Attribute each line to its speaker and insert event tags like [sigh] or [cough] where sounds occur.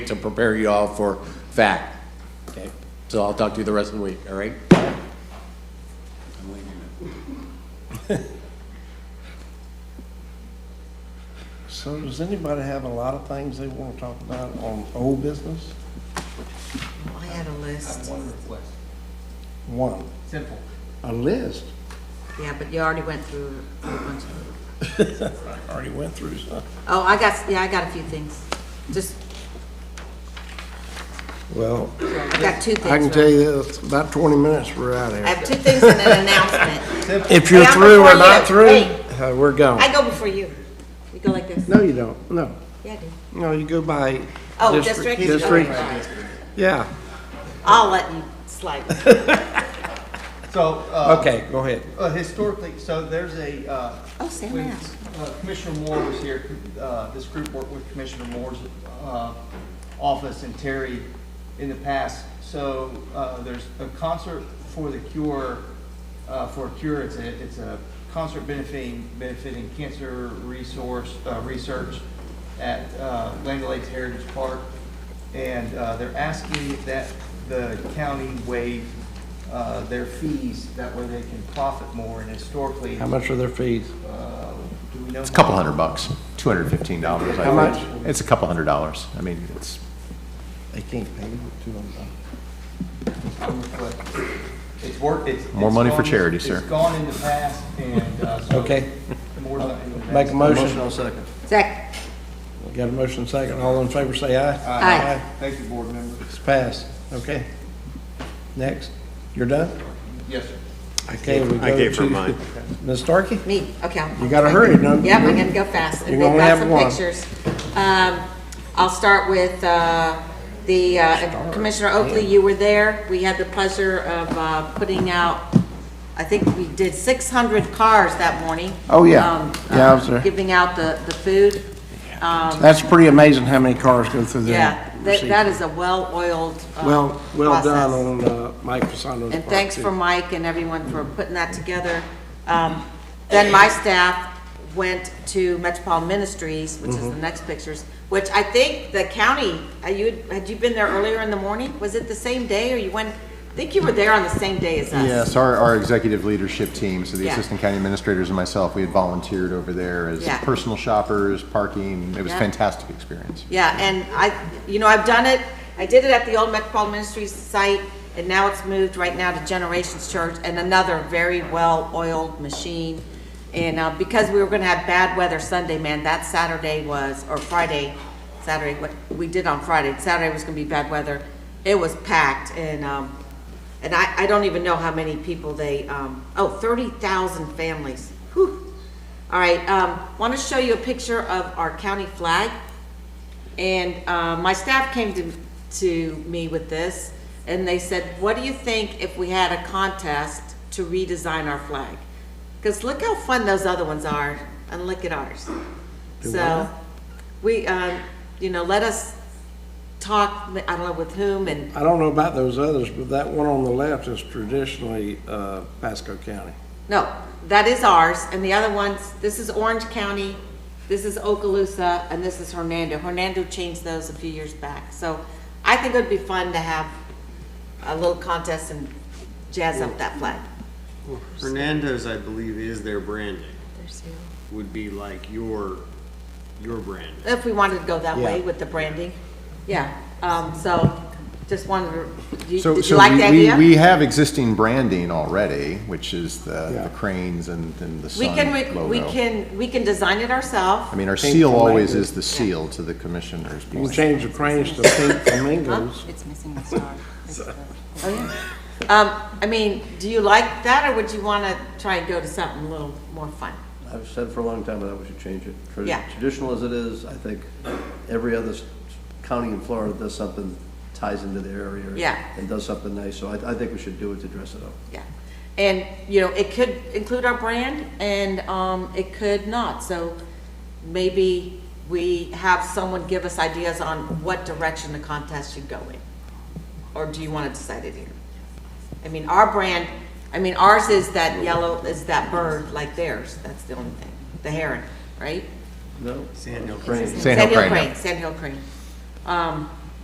Speaker 1: to prepare you all for fact. Okay, so I'll talk to you the rest of the week, all right? I'm leaving now.
Speaker 2: So does anybody have a lot of things they want to talk about on old business?
Speaker 3: I had a list,
Speaker 2: One.
Speaker 4: Simple.
Speaker 2: A list.
Speaker 3: yeah, but you already went through a bunch of them.
Speaker 2: Already went through some.
Speaker 3: Oh, I got, yeah, I got a few things, just,
Speaker 2: Well,
Speaker 3: I got two things.
Speaker 2: I can tell you this, about twenty minutes, we're out of
Speaker 3: I
Speaker 2: here.
Speaker 3: have two things and an announcement.
Speaker 2: If
Speaker 3: Hey,
Speaker 2: you're
Speaker 3: I'm
Speaker 2: through or
Speaker 3: before
Speaker 2: not
Speaker 3: you.
Speaker 2: through,
Speaker 3: Hey.
Speaker 2: uh, we're gone.
Speaker 3: I go before you. We go like this.
Speaker 2: No, you don't. No,
Speaker 3: Yeah, I do.
Speaker 2: no, you go by.
Speaker 3: Oh, district?
Speaker 2: District,
Speaker 3: Okay.
Speaker 2: yeah.
Speaker 3: I'll let you slide.
Speaker 4: So, uh,
Speaker 2: Okay, go ahead.
Speaker 4: uh, historically, so there's a, uh,
Speaker 3: Oh, Sam
Speaker 4: when,
Speaker 3: asked.
Speaker 4: uh, Commissioner Moore was here, uh, this group worked with Commissioner Moore's, uh, office and Terry in the past. So, uh, there's a concert for the cure, uh, for cure, it's a, it's a concert benefiting, benefiting cancer resource, uh, research at, uh, Land Lakes Heritage Park. And, uh, they're asking that the county waive, uh, their fees, that way they can profit more and historically.
Speaker 2: How much are their fees?
Speaker 4: Uh, Do we know?
Speaker 5: It's a couple hundred bucks, two hundred fifteen dollars.
Speaker 2: How much?
Speaker 5: It's a couple hundred dollars. I mean, it's,
Speaker 2: They can't pay with two hundred dollars.
Speaker 4: It's work, it's.
Speaker 5: More
Speaker 4: it's
Speaker 5: money for
Speaker 4: gone-
Speaker 5: charity, sir.
Speaker 4: It's gone in the past and, uh, so.
Speaker 2: Okay,
Speaker 4: More than.
Speaker 2: make a motion.
Speaker 4: second.
Speaker 3: Zach,
Speaker 2: Got a motion second. All in favor, say aye.
Speaker 3: Aye.
Speaker 4: Thank you, board member.
Speaker 2: It's passed. Okay. Next. You're done?
Speaker 4: Yes, sir.
Speaker 2: I gave,
Speaker 6: I gave her mine.
Speaker 2: [laughs] Ms. Starkey?
Speaker 3: me, okay. I'll-
Speaker 2: You gotta hurry, no?
Speaker 3: Yep, I gotta go fast.
Speaker 2: You only have one.
Speaker 3: They've got some pictures. Um, I'll start with, uh, the, uh, Commissioner Oakley, you were there. We had the pleasure of, uh, putting out, I think we did six hundred cars that morning.
Speaker 2: Oh, yeah.
Speaker 3: Um,
Speaker 2: Yeah, I was there.
Speaker 3: Giving out the, the food.
Speaker 2: That's pretty amazing how many cars go through there.
Speaker 3: Yeah, that, that is a well-oiled, uh,
Speaker 2: Well, well
Speaker 3: process.
Speaker 2: done on, uh, Mike Fasano's part.
Speaker 3: And thanks
Speaker 2: too.
Speaker 3: for Mike and everyone for putting that together. Um, Then my staff went to Metropolitan Ministries, which is the next pictures, which I think the county, uh, you, had you been there earlier in the morning? Was it the same day or you went, I think you were there on the same day as us.
Speaker 5: yes, our, our executive leadership team, so the
Speaker 3: Yeah.
Speaker 5: assistant county administrators and myself, we had volunteered over there as
Speaker 3: Yeah.
Speaker 5: personal shoppers, parking. It was
Speaker 3: Yeah.
Speaker 5: a fantastic experience.
Speaker 3: Yeah, and I, you know, I've done it, I did it at the old Metropolitan Ministries site, and now it's moved right now to Generations Church, and another very well-oiled machine. And, uh, because we were gonna have bad weather Sunday, man, that Saturday was, or Friday, Saturday, what, we did on Friday, Saturday was gonna be bad weather. It was packed, and, um, and I, I don't even know how many people they, um, oh, thirty thousand families, whew. All right, um, wanna show you a picture of our county flag. And uh, my staff came to, to me with this, and they said, what do you think if we had a contest to redesign our flag? Because look how fun those other ones are, and look at ours. So, we, um, you know, let us talk, I don't know with whom, and,
Speaker 2: I don't know about those others, but that one on the left is traditionally, uh, Pasco County.
Speaker 3: no, that is ours, and the other ones, this is Orange County, this is Okaloosa, and this is Hernando. Hernando changed those a few years back, so I think it would be fun to have a little contest and jazz up that flag.
Speaker 6: Hernandez, I believe, is their branding. Would be like your, your brand.
Speaker 3: If we wanted to go that way with the branding, yeah. Um, so just wanted to, you-
Speaker 5: So,
Speaker 3: did you
Speaker 5: so
Speaker 3: like
Speaker 5: we-
Speaker 3: the
Speaker 5: we-
Speaker 3: idea?
Speaker 5: We have existing branding already, which is the
Speaker 2: Yeah.
Speaker 5: the cranes and, and the
Speaker 3: We
Speaker 5: sun
Speaker 3: can, re-
Speaker 5: logo.
Speaker 3: we can, we always is
Speaker 5: I
Speaker 3: ourselves.
Speaker 5: mean, our
Speaker 2: Pink
Speaker 5: seal always
Speaker 2: flamingos.
Speaker 5: is the seal to the commissioners.
Speaker 2: You can change the cranes to pink flamingos.
Speaker 3: It's missing the star. Oh, yeah. Um, I mean, do you like that, or would you want to try and go to something a little more fun?
Speaker 7: I've said for a long time that we should change it. Tra-
Speaker 3: Yeah.
Speaker 7: Traditional as it is, I think every other s- county in Florida does something ties into their area.
Speaker 3: Yeah.
Speaker 7: And does something nice, so I, I think we should do it to dress it up.
Speaker 3: Yeah. And, you know, it could include our brand and um, it could not. So maybe we have someone give us ideas on what direction the contest should go in. Or do you want to decide it here? I mean, our brand, I mean, ours is that yellow, is that bird like theirs. That's the only thing. The heron, right?
Speaker 7: No?
Speaker 6: Sand Hill
Speaker 7: Crane.
Speaker 5: Sand Hill crane, yeah.
Speaker 3: Sand Hill Crane. Um,